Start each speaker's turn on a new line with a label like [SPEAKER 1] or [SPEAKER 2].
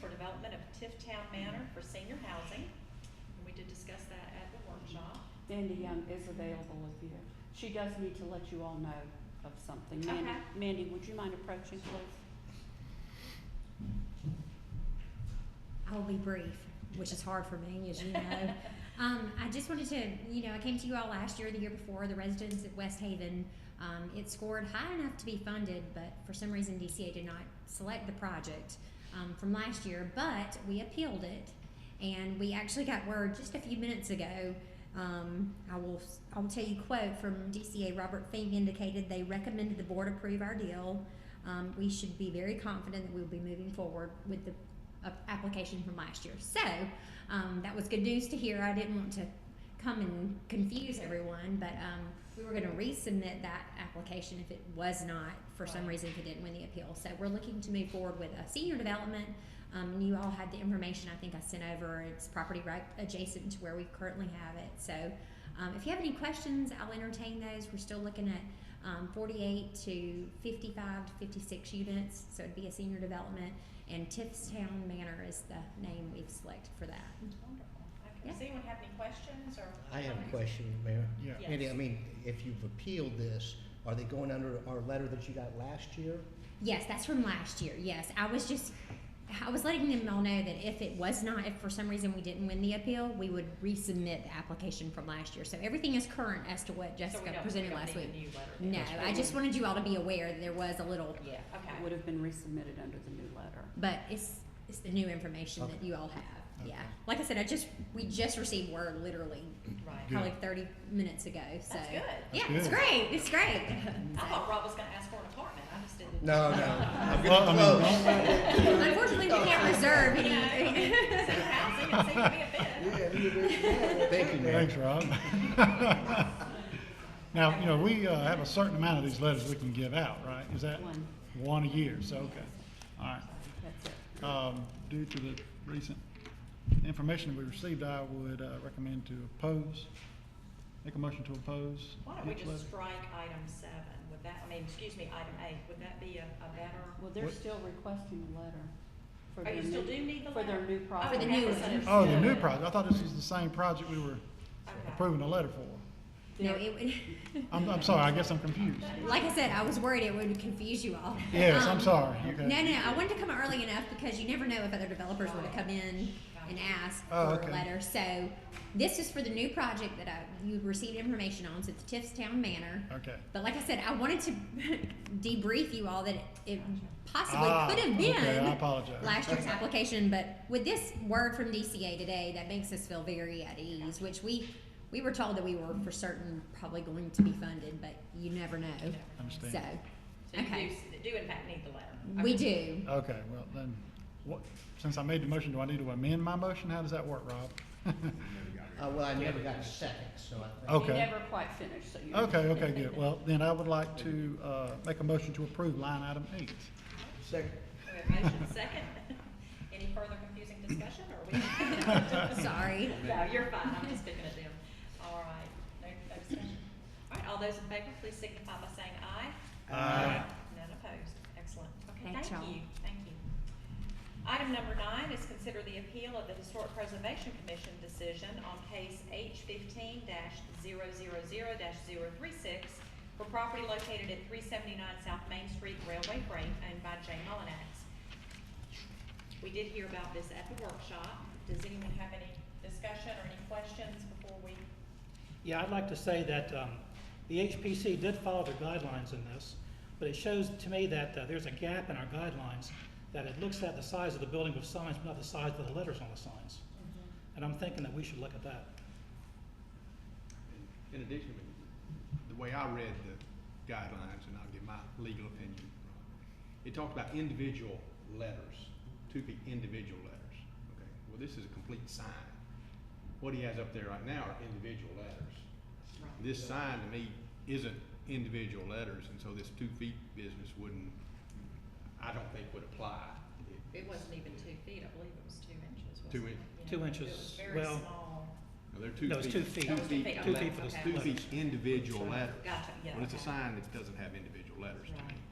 [SPEAKER 1] for development of Tifftown Manor for senior housing. And we did discuss that at the workshop.
[SPEAKER 2] Mandy Young is available if you, she does need to let you all know of something. Mandy,
[SPEAKER 1] Okay.
[SPEAKER 2] Mandy, would you mind approaching, please?
[SPEAKER 3] I'll be brief, which is hard for me, as you know. um, I just wanted to, you know, I came to you all last year, the year before, the residents at West Haven. Um, it scored high enough to be funded, but for some reason DCA did not select the project um, from last year. But we appealed it, and we actually got word just a few minutes ago. Um, I will I will tell you a quote from DCA. Robert Fink indicated they recommended the board approve our deal. Um, we should be very confident that we will be moving forward with the a- application from last year. So um, that was good news to hear. I didn't want to come and confuse everyone, but um, we were going to resubmit that application if it was not, for some
[SPEAKER 1] Right.
[SPEAKER 3] reason, if it didn't win the appeal. So we're looking to move forward with a senior development. Um, and you all had the information I think I sent over. It's property right adjacent to where we currently have it. So um, if you have any questions, I'll entertain those. We're still looking at um, 48 to 55 to 56 units, so it'd be a senior development. And Tiffstown Manor is the name we've selected for that.
[SPEAKER 1] Wonderful. Okay,
[SPEAKER 3] Yeah.
[SPEAKER 1] does anyone have any questions or?
[SPEAKER 4] I have a
[SPEAKER 1] comments?
[SPEAKER 4] question, Mayor.
[SPEAKER 5] Yeah.
[SPEAKER 1] Yes.
[SPEAKER 4] Andy, I mean, if you've appealed this, are they going under our letter that you got last year?
[SPEAKER 3] Yes, that's from last year. Yes, I was just, I was letting them all know that if it was not, if for some reason we didn't win the appeal, we would resubmit the application from last year. So everything is current as to what
[SPEAKER 1] So we
[SPEAKER 3] Jessica
[SPEAKER 1] don't- we
[SPEAKER 3] presented
[SPEAKER 1] don't
[SPEAKER 3] last
[SPEAKER 1] need a
[SPEAKER 3] week.
[SPEAKER 1] new letter then.
[SPEAKER 3] No, I just wanted you all to be aware that there was a little,
[SPEAKER 1] Yeah,
[SPEAKER 2] It
[SPEAKER 1] okay.
[SPEAKER 2] would have been resubmitted under the new letter.
[SPEAKER 3] but it's it's the new information that
[SPEAKER 4] Okay.
[SPEAKER 3] you all have. Yeah,
[SPEAKER 5] Okay.
[SPEAKER 3] like I said, I just we just received word literally
[SPEAKER 1] Right.
[SPEAKER 5] Good.
[SPEAKER 3] probably 30 minutes ago. So
[SPEAKER 1] That's good.
[SPEAKER 3] yeah,
[SPEAKER 5] That's
[SPEAKER 3] it's
[SPEAKER 5] good.
[SPEAKER 3] great. It's great.
[SPEAKER 1] I thought Rob was gonna ask for an apartment. I just didn't.
[SPEAKER 4] No, no. I'm
[SPEAKER 5] Well, I
[SPEAKER 4] getting
[SPEAKER 5] mean,
[SPEAKER 4] close.
[SPEAKER 3] Unfortunately, we can't reserve
[SPEAKER 1] You know,
[SPEAKER 3] any.
[SPEAKER 1] senior housing, it seemed to be a fit.
[SPEAKER 4] Thank you, Mayor.
[SPEAKER 5] Thanks, Rob. Now, you know, we uh, have a certain amount of these letters we can give out, right? Is that?
[SPEAKER 2] One.
[SPEAKER 5] One a year, so, okay. All
[SPEAKER 2] That's it.
[SPEAKER 5] right. Um, Due to the recent information that we received, I would uh, recommend to oppose, make a motion to oppose.
[SPEAKER 1] Why don't we
[SPEAKER 5] each
[SPEAKER 1] just
[SPEAKER 5] letter.
[SPEAKER 1] strike item seven? Would that, I mean, excuse me, item eight, would that be a, a better?
[SPEAKER 2] Well, they're
[SPEAKER 5] What-
[SPEAKER 2] still requesting a letter. for
[SPEAKER 1] Oh,
[SPEAKER 2] their
[SPEAKER 1] you still
[SPEAKER 2] new-
[SPEAKER 1] do need the
[SPEAKER 2] For their
[SPEAKER 1] letter?
[SPEAKER 2] new
[SPEAKER 1] Oh,
[SPEAKER 2] project.
[SPEAKER 3] For the new
[SPEAKER 1] okay,
[SPEAKER 3] one.
[SPEAKER 1] misunderstood.
[SPEAKER 5] Oh, the new project. I thought this was the same project we were
[SPEAKER 1] Okay.
[SPEAKER 5] approving a letter for.
[SPEAKER 3] No, it would.
[SPEAKER 5] I'm, I'm sorry, I guess I'm confused.
[SPEAKER 3] Like I said, I was worried it would confuse you all.
[SPEAKER 5] Yes,
[SPEAKER 3] Um,
[SPEAKER 5] I'm sorry.
[SPEAKER 3] No,
[SPEAKER 5] Okay.
[SPEAKER 3] no, I wanted to come early enough because you never know if other developers were to come in and ask
[SPEAKER 5] Oh,
[SPEAKER 3] for a
[SPEAKER 5] okay.
[SPEAKER 3] letter. So this is for the new project that I, you received information on, so it's Tiffstown Manor.
[SPEAKER 5] Okay.
[SPEAKER 3] But like I said, I wanted to debrief you all that it possibly
[SPEAKER 5] Ah,
[SPEAKER 3] could have been
[SPEAKER 5] Okay, I apologize.
[SPEAKER 3] last year's application, but with this word from DCA today, that makes us feel very at ease, which we, we were told that we were for certain probably going to be funded, but you never know.
[SPEAKER 5] Understand.
[SPEAKER 1] So
[SPEAKER 3] So,
[SPEAKER 1] you do,
[SPEAKER 3] Okay.
[SPEAKER 1] s- do in fact need the letter.
[SPEAKER 3] we
[SPEAKER 1] Okay.
[SPEAKER 3] do.
[SPEAKER 5] Okay, well, then, what, since I made the motion, do I need to amend my motion? How does that work, Rob?
[SPEAKER 4] Uh, well, I never got a second, so I think.
[SPEAKER 5] Okay.
[SPEAKER 2] You never quite finished, so you.
[SPEAKER 5] Okay, okay, good. Well, then I would like to, uh, make a motion to approve line item eight.
[SPEAKER 4] Second.
[SPEAKER 1] We have motion second. Any further confusing discussion or we?
[SPEAKER 3] Sorry.
[SPEAKER 1] No, you're fine. I'm just picking at them. All right. No, no discussion. All right, all those in favor, please signify by saying aye.
[SPEAKER 4] Uh,
[SPEAKER 5] Aye.
[SPEAKER 1] None opposed. Excellent. Okay,
[SPEAKER 3] Thanks,
[SPEAKER 1] thank
[SPEAKER 3] y'all.
[SPEAKER 1] you. Thank you. Item number nine is consider the appeal of the Historic Preservation Commission decision on case H fifteen 0 for property located at three seventy-nine South Main Street Railway Freight owned by Jay Mullinax. We did hear about this at the workshop. Does anyone have any discussion or any questions before we?
[SPEAKER 6] Yeah, I'd like to say that um, the HPC did follow the guidelines in this, but it shows to me that uh, there's a gap in our guidelines, that it looks at the size of the building with signs, but not the size of the letters on the signs. And I'm thinking that we should look at that.
[SPEAKER 7] In addition, the way I read the guidelines, and I'll give my legal opinion, it talked about individual letters, to be individual letters, okay? Well, this is a complete sign. What he has up there right now are individual letters. This sign to me isn't individual letters, and so this two feet business wouldn't, I don't think would apply.
[SPEAKER 1] It wasn't even two feet. I believe it was two inches.
[SPEAKER 7] Two
[SPEAKER 1] wasn't
[SPEAKER 7] in-
[SPEAKER 1] it?
[SPEAKER 6] Two
[SPEAKER 1] Yeah. It
[SPEAKER 6] inches.
[SPEAKER 1] was very
[SPEAKER 6] Well,
[SPEAKER 1] small.
[SPEAKER 7] Now, they're two feet.
[SPEAKER 6] No, it's two feet.
[SPEAKER 1] Oh, it's two feet.
[SPEAKER 7] Two
[SPEAKER 1] Okay,
[SPEAKER 7] feet for the,
[SPEAKER 1] okay.
[SPEAKER 7] two feet individual letters.
[SPEAKER 1] Gotcha, yeah.
[SPEAKER 7] Well, it's a
[SPEAKER 1] okay.
[SPEAKER 7] sign that doesn't have individual letters to
[SPEAKER 1] Right.
[SPEAKER 7] me.